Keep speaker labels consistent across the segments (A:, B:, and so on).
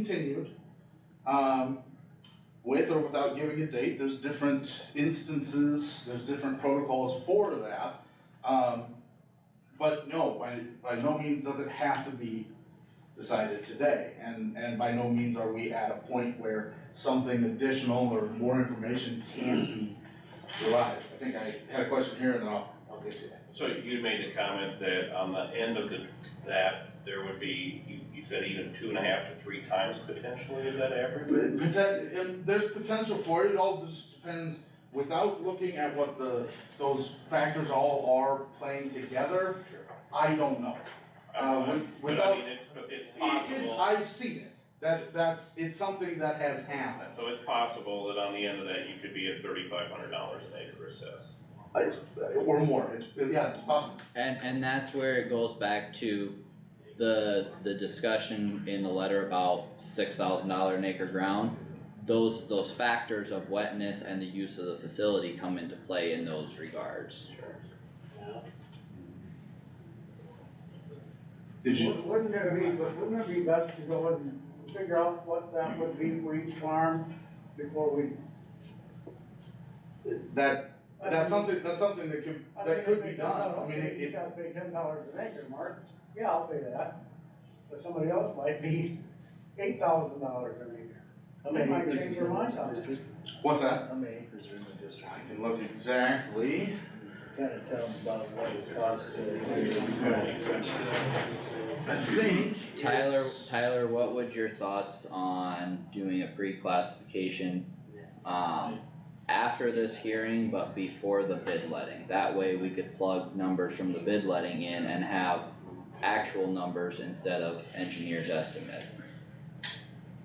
A: continued, um, with or without giving a date, there's different instances, there's different protocols for that. Um, but no, by, by no means does it have to be decided today, and, and by no means are we at a point where something additional or more information can be provided. I think I had a question here, and then I'll, I'll get to that.
B: So you made the comment that on the end of the, that there would be, you, you said even two and a half to three times potentially, is that average?
A: Poten- if there's potential for it, it all just depends, without looking at what the, those factors all are playing together, I don't know. Uh,
B: Um,
A: with-
B: But I
A: without,
B: mean, it's, it's
A: It- it's,
B: possible,
A: I've seen it, that, that's, it's something that has happened.
B: so it's possible that on the end of that, you could be at thirty-five hundred dollars an acre assessed.
A: It's, or more, it's, yeah, it's possible.
C: And, and that's where it goes back to the, the discussion in the letter about six thousand dollar an acre ground. Those, those factors of wetness and the use of the facility come into play in those regards.
A: Did you,
D: Wouldn't it be, but wouldn't it be best to go and figure out what that would be for each farm before we?
A: that, that's something, that's something that could,
D: I mean,
A: that could
D: if
A: be
D: they
A: done,
D: go,
A: I mean,
D: okay,
A: it,
D: You
A: it-
D: gotta pay ten dollars an acre, Mark, yeah, I'll pay that, but somebody else might be eight thousand dollars an acre.
E: How
D: They
E: many
D: might
E: acres
D: change
E: is
D: their
E: in
D: mind
E: this
D: on it.
E: district?
A: what's that?
E: How many acres are in the district?
A: I can look exactly.
E: Kind of tell them about what it costs to.
B: Yeah.
A: I think
C: Tyler,
A: it's-
C: Tyler, what would your thoughts on doing a pre-classification? Um, after this hearing, but before the bid letting, that way we could plug numbers from the bid letting in and have actual numbers instead of engineers' estimates.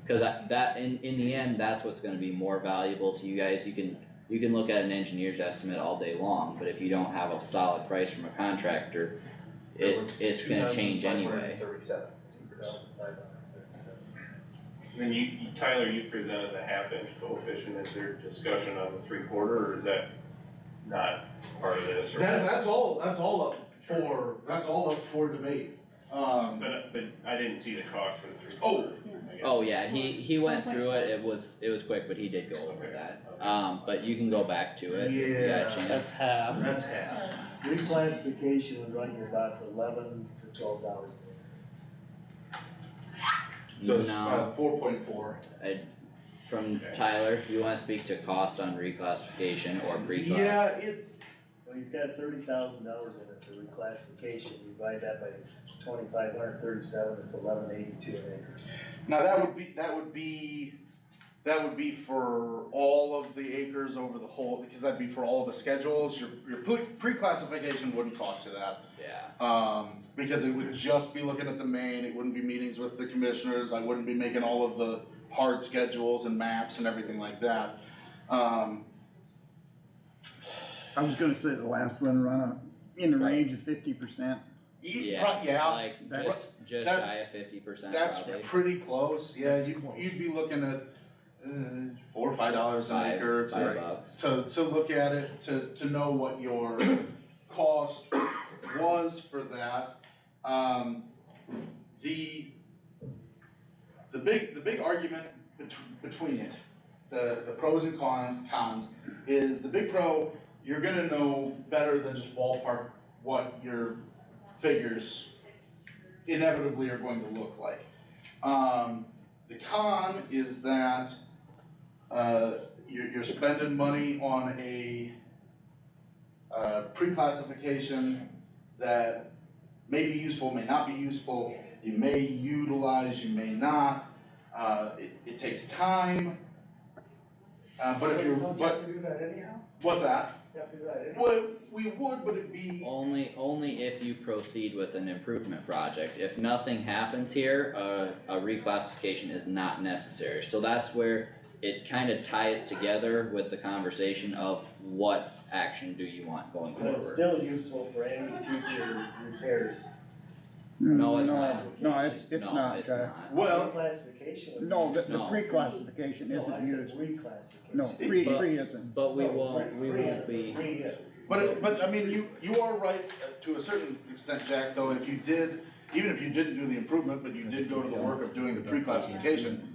C: Cause that, that, in, in the end, that's what's gonna be more valuable to you guys, you can, you can look at an engineer's estimate all day long, but if you don't have a solid price from a contractor, it, it's gonna change anyway.
E: Thirty-seven.
B: And you, you- Tyler, you presented the half-inch coefficient, is there discussion on the three-quarter, or is that not part of this? or-
A: That, that's all, that's all up for, that's all up for debate. Um,
B: But, but I didn't see the cost for the three.
A: Oh.
C: Oh yeah, he he went through it. It was it was quick, but he did go over that. Um, but you can go back to it. if you got a
A: Yeah.
C: chance.
F: half.
A: that's half.
E: Reclassification would run you about eleven to twelve dollars an acre.
A: So it's
C: No,
A: uh, four point four.
C: from Tyler, you wanna speak to cost on reclassification or pre-class?
A: Yeah, it,
E: Well, he's got thirty thousand dollars in it for reclassification, you divide that by twenty-five hundred thirty-seven, it's eleven eighty-two an acre.
A: now that would be, that would be, that would be for all of the acres over the whole, because that'd be for all the schedules. Your, your pre- pre-classification wouldn't cost you that.
C: Yeah.
A: Um, because it would just be looking at the main, it wouldn't be meetings with the commissioners, I wouldn't be making all of the hard schedules and maps and everything like that. Um,
G: I was gonna say the last one run up in the
C: Right.
G: range of fifty percent.
A: ye-
C: Yeah.
A: e, pro- yeah,
C: Like
G: that's-
C: just just
A: that's-
C: shy of fifty percent
A: that's
C: probably.
A: pretty close, yeah,
G: That's
A: you,
G: close.
A: you'd be looking at, uh, four or five dollars an
C: Five,
A: acre to-
C: five bucks.
A: to, to look at it, to, to know what your cost was for that. Um, the, the big, the big argument bet- between it, the, the pros and con, cons, is the big pro, you're gonna know better than just ballpark what your figures inevitably are going to look like. Um, the con is that, uh, you're, you're spending money on a, uh, pre-classification that may be useful, may not be useful, you may utilize, you may not, uh, it, it takes time. Uh, but if you're,
D: Don't you
A: but,
D: have to do that anyhow?
A: what's that?
D: You have to do that anyhow?
A: Well, we would, but it'd be,
C: Only only if you proceed with an improvement project. If nothing happens here, uh, a a reclassification is not necessary. So that's where it kind of ties together with the conversation of what action do you want going
E: But it's
C: forward?
E: still useful for any future repairs.
C: No, it's not.
G: No, it's, it's
C: No,
G: not, uh,
A: well,
E: Reclassification would.
G: no, the, the
C: No.
G: pre-classification
E: No, I
G: isn't
E: said
G: used,
E: reclassification.
G: no, pre,
C: But-
G: pre isn't.
C: But we
E: No,
C: won't, we
E: re-
C: won't be,
E: Re is.
A: But, but I mean, you, you are right uh, to a certain extent, Jack, though, if you did, even if you didn't do the improvement, but you did go to the work of doing the pre-classification,